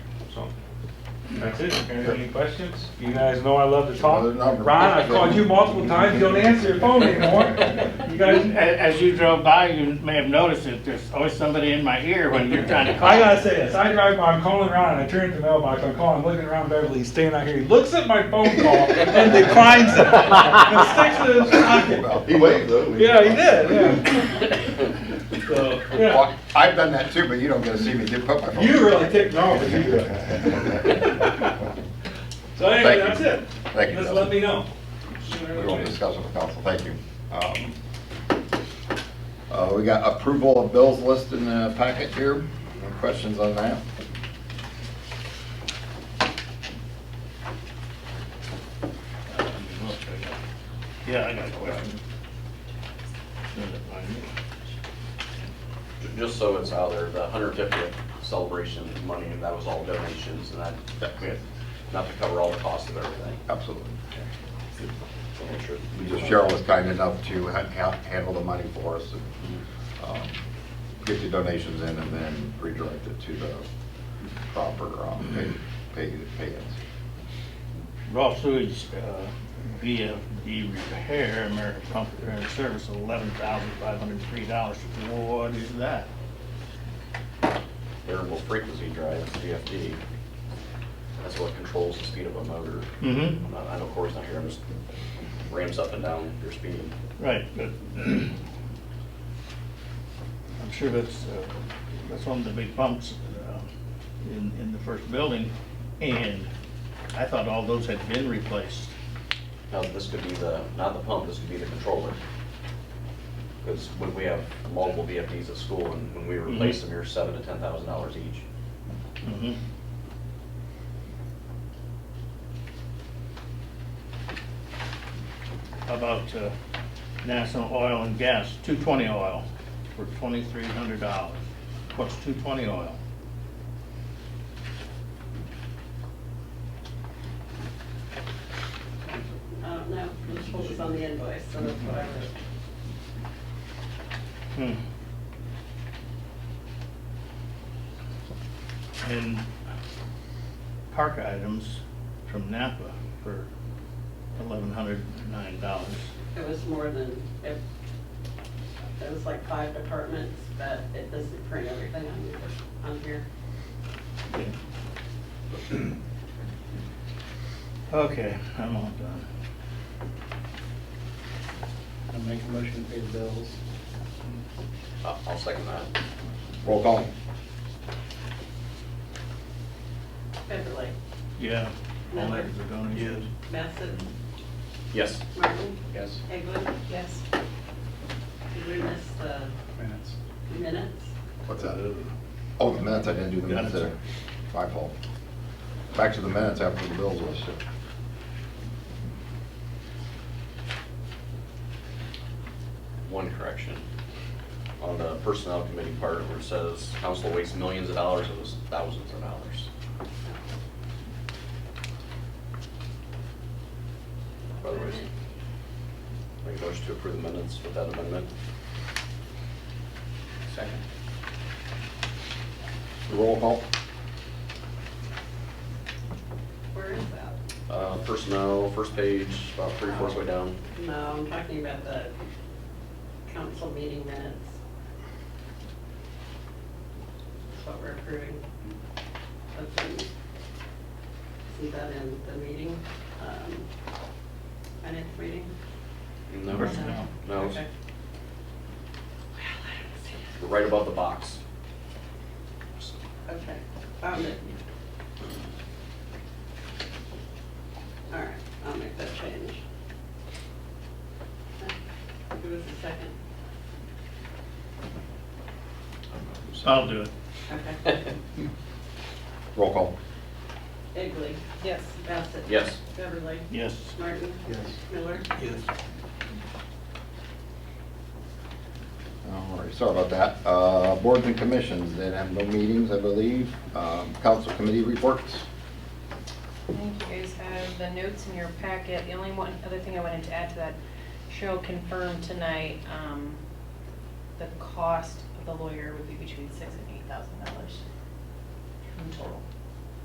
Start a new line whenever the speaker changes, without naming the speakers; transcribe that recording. So, that's it. If there are Any questions? You guys know I love to talk.
Another number.
Ron, I've called you multiple times, you don't answer your phone anymore. You
A-
guys,
As you drove by, you may have noticed that there's always somebody in my ear when you're trying to call.
I gotta say this, I drive by, I'm calling Ron, and I turn to the mailbox, I'm calling, looking around Beverly, he's standing out here, he looks at my phone call and declines it. And sticks it in his
Well,
pocket.
He waved though.
Yeah, he did, yeah. So,
Well,
yeah.
I've done that too, but you don't get to see me dip up my phone.
You really ticked me off, but you did. So anyway,
Thank
that's
you.
it.
Thank you,
Just
Justin.
let me know.
We won't discuss it with council, thank you. Um, uh, We got approval of bills listed in the packet here. Any questions on that?
Yeah, I got a question.
Ju- Just so it's out there, the 150th celebration money, and that was all donations, and that, that- we had- not to cover all the cost of everything.
Absolutely.
So make sure-
Just Cheryl was kind enough to ha- ha- handle the money for us and um, get the donations in and then redirect it to the proper um, pay- pay payouts.
Raw sewage, uh, VFD repair, American Pump Repair and Service, eleven thousand five hundred and three dollars. What is that?
Variable frequency drive, VFD. That's what controls the speed of a motor.
Mm-hmm.
I'm not- I know Corey's not here, I'm just ramps up and down your speed.
Right, but I'm sure that's, uh, that's one of the big pumps uh, in, in the first building, and I thought all those had been replaced.
Now, this could be the, not the pump, this could be the controller. Because when we have multiple VFDs at school, and when we replace them, you're seven to $10,000 each.
Mhm. How About uh, National Oil and Gas, 220 oil for $2,300. What's 220 oil?
I don't know, I just hope it's on Uh, the invoice, so that's what I wrote.
Hmm. And park items from Napa for eleven hundred nine dollars.
It was more than, it, it was like five departments, but it doesn't print everything on here, on here.
Okay, I'm all done.
I make a motion to pay the bills.
I'll I'll second that.
Roll call.
Beverly,
Yeah. All
Miller?
that is a donation.
Bassett,
Yes.
Martin,
Yes.
Eglin. Yes. Did we miss the
Minutes.
minutes?
What's that? Oh, the minutes, I didn't do the minutes there. My fault. Back to the minutes after the bills was shipped.
One correction. On the personnel committee part where it says council wastes millions of dollars, it was thousands of dollars. Otherwise, make a motion to approve the minutes with that amendment. Second.
Roll call.
Where is that?
Uh, personnel, first page, about three fourths way down.
No, I'm talking about the council meeting minutes. That's what we're approving. That's in- See that in the meeting, um, finance meeting?
No,
Personnel.
No, it's
Okay. Well, I don't see it.
right above the box.
Okay, found it. All right, I'll make that change. Give us a second.
I'll do it.
Okay.
Roll call.
Egley. Yes. Bassett.
Yes.
Beverly.
Yes.
Martin.
Yes.
Miller.
All right, sorry about that. Uh, Boards and commissions, they have no meetings, I believe. Um, Council committee reports.
I think you guys have the notes in your packet. The only one, other thing I wanted to add to that, Cheryl confirmed tonight, um, the cost of the lawyer would be between six and eight thousand dollars in total.